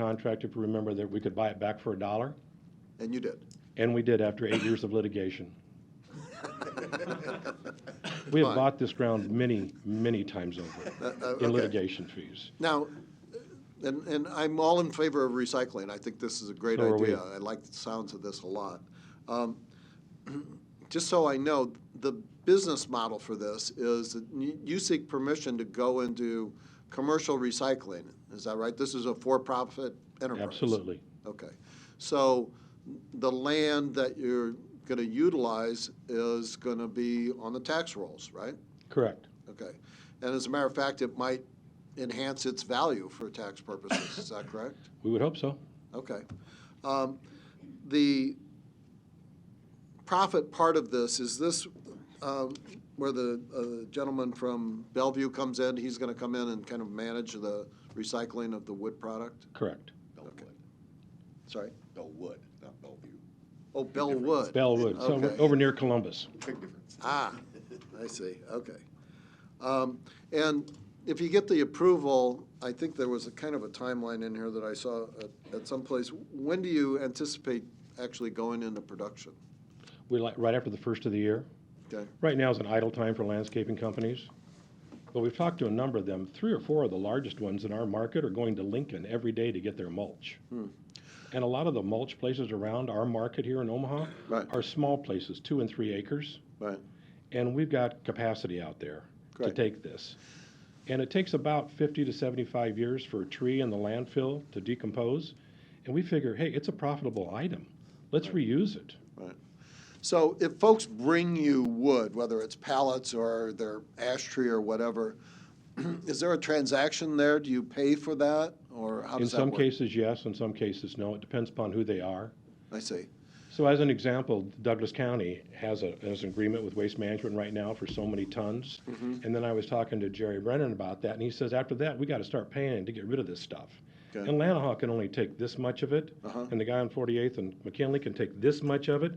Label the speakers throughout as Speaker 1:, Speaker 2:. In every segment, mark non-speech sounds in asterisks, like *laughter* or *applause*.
Speaker 1: contract, if you remember, that we could buy it back for a dollar,
Speaker 2: And you did.
Speaker 1: and we did after eight years of litigation. *laughs* We have
Speaker 2: Fine.
Speaker 1: bought this ground many, many times over
Speaker 2: uh,
Speaker 1: in
Speaker 2: okay.
Speaker 1: litigation fees.
Speaker 2: Now, and, and I'm all in favor of recycling. I think this is a great
Speaker 1: So are we.
Speaker 2: idea. I like the sounds of this a lot. Um, *clears throat* Just so I know, the business model for this is that you you seek permission to go into commercial recycling. Is that right? This is a for-profit enterprise?
Speaker 1: Absolutely.
Speaker 2: Okay. So the land that you're going to utilize is going to be on the tax rolls, right?
Speaker 1: Correct.
Speaker 2: Okay. And as a matter of fact, it might enhance its value for tax purposes, is that correct?
Speaker 1: We would hope so.
Speaker 2: Okay. Um, The profit part of this, is this um, where the uh, gentleman from Bellevue comes in? He's going to come in and kind of manage the recycling of the wood product?
Speaker 1: Correct.
Speaker 3: Bellwood,
Speaker 2: Sorry?
Speaker 3: Bellwood, not Bellevue.
Speaker 2: Oh, Bellwood.
Speaker 1: Bellwood, so
Speaker 2: Okay.
Speaker 1: over near Columbus.
Speaker 3: Big difference.
Speaker 2: Ah, *laughs* I see, okay. Um, And if you get the approval, I think there was a kind of a timeline in here that I saw at- at some place. When do you anticipate actually going into production?
Speaker 1: We like, right after the first of the year.
Speaker 2: Okay,
Speaker 1: Right now is an idle time for landscaping companies. But we've talked to a number of them. Three or four of the largest ones in our market are going to Lincoln every day to get their mulch.
Speaker 2: Hmm.
Speaker 1: And a lot of the mulch places around our market here in Omaha
Speaker 2: Right.
Speaker 1: are small places, two and three acres.
Speaker 2: right,
Speaker 1: And we've got capacity out there to
Speaker 2: Great.
Speaker 1: take this. And it takes about 50 to 75 years for a tree in the landfill to decompose. And we figure, hey, it's a profitable item. Let's reuse it.
Speaker 2: right. So if folks bring you wood, whether it's pallets or their ash tree or whatever, *clears throat* is there a transaction there? Do you pay for that, or how
Speaker 1: In
Speaker 2: does that
Speaker 1: some
Speaker 2: work?
Speaker 1: cases, yes, in some cases, no. It depends upon who they are.
Speaker 2: I see,
Speaker 1: So as an example, Douglas County has a, has an agreement with Waste Management right now for so many tons.
Speaker 2: Mm-hmm.
Speaker 1: And then I was talking to Jerry Brennan about that, and he says, after that, we gotta start paying to get rid of this stuff.
Speaker 2: Okay.
Speaker 1: And Lanahaw can only take this much of it,
Speaker 2: Uh-huh.
Speaker 1: and the guy on Forty-Eighth and McKinley can take this much of it,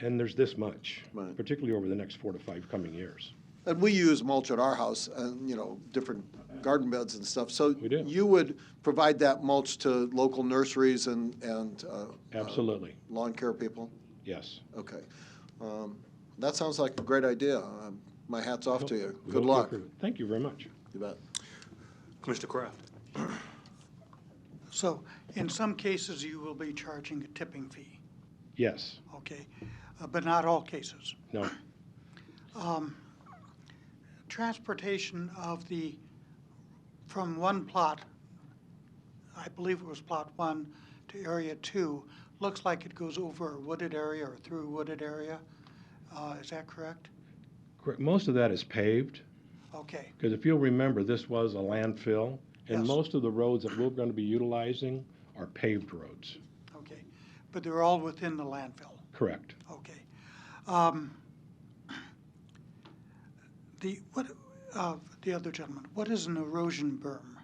Speaker 1: and there's this much,
Speaker 2: Mm-hmm. Right.
Speaker 1: particularly over the next four to five coming years.
Speaker 2: And we use mulch at our house and, you know, different garden beds and stuff. So
Speaker 1: We do.
Speaker 2: you would provide that mulch to local nurseries and, and uh,
Speaker 1: Absolutely,
Speaker 2: lawn care people?
Speaker 1: yes.
Speaker 2: Okay. Um, That sounds like a great idea. Um, My hat's off to you.
Speaker 1: We
Speaker 2: Good
Speaker 1: hope you
Speaker 2: luck.
Speaker 1: approve. Thank you very much.
Speaker 2: You bet.
Speaker 4: Commissioner Kraft.
Speaker 5: So in some cases, you will be charging a tipping fee,
Speaker 1: Yes,
Speaker 5: okay? Uh, But not all cases.
Speaker 1: no,
Speaker 5: Transportation of the, from one plot, I believe it was plot one, to area two, looks like it goes over a wooded area or through a wooded area. Uh, Is that correct?
Speaker 1: Correct. most of that is paved.
Speaker 5: Okay,
Speaker 1: Because if you'll remember, this was a landfill, and
Speaker 5: Yes.
Speaker 1: most of the roads that we're going to be utilizing are paved roads.
Speaker 5: okay. But they're all within the landfill.
Speaker 1: Correct.
Speaker 5: Okay. Um, The, what, uh, the other gentleman, what is an erosion berm?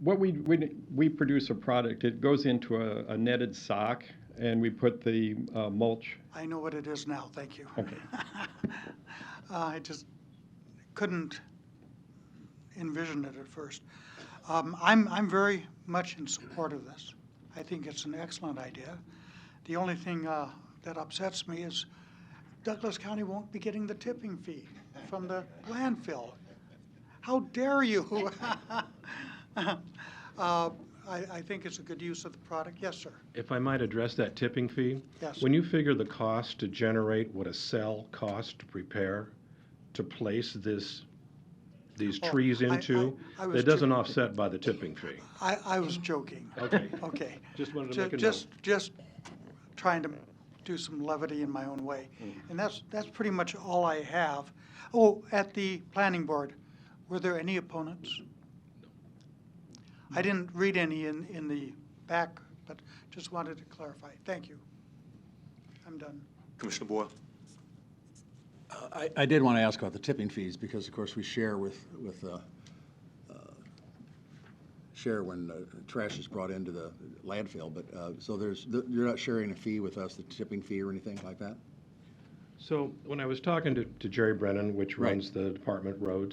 Speaker 6: What we, we, we produce a product, it goes into a, a netted sock and we put the uh, mulch.
Speaker 5: I know what it is now, thank you.
Speaker 6: Okay.
Speaker 5: *laughs* Uh, I just couldn't envision it at first. Um, I'm, I'm very much in support of this. I think it's an excellent idea. The only thing uh, that upsets me is Douglas County won't be getting the tipping fee from the landfill. How dare you? *laughs* Uh, I, I think it's a good use of the product. Yes, sir.
Speaker 1: If I might address that tipping fee?
Speaker 5: Yes.
Speaker 1: When you figure the cost to generate what a cell costs to prepare, to place this, these
Speaker 5: Oh,
Speaker 1: trees
Speaker 5: I- I-
Speaker 1: into,
Speaker 5: I was
Speaker 1: that doesn't
Speaker 5: joking.
Speaker 1: offset by the tipping fee.
Speaker 5: *laughs* I, I was joking.
Speaker 1: Okay.
Speaker 5: Okay.
Speaker 1: *laughs* Just wanted to
Speaker 5: Ju-
Speaker 1: make a note.
Speaker 5: Just, just trying to do some levity in my own way.
Speaker 1: Mm.
Speaker 5: And that's, that's pretty much all I have. Oh, at the planning board, were there any opponents? I didn't read any in, in the back, but just wanted to clarify. Thank you. I'm done.
Speaker 4: Commissioner Boyle.
Speaker 7: I, I did want to ask about the tipping fees, because of course we share with, with, uh, uh, share when uh, trash is brought into the landfill, but, uh, so there's, you're not sharing a fee with us, the tipping fee or anything like that?
Speaker 1: So when I was talking to, to Jerry Brennan, which
Speaker 7: Right.
Speaker 1: runs the department roads,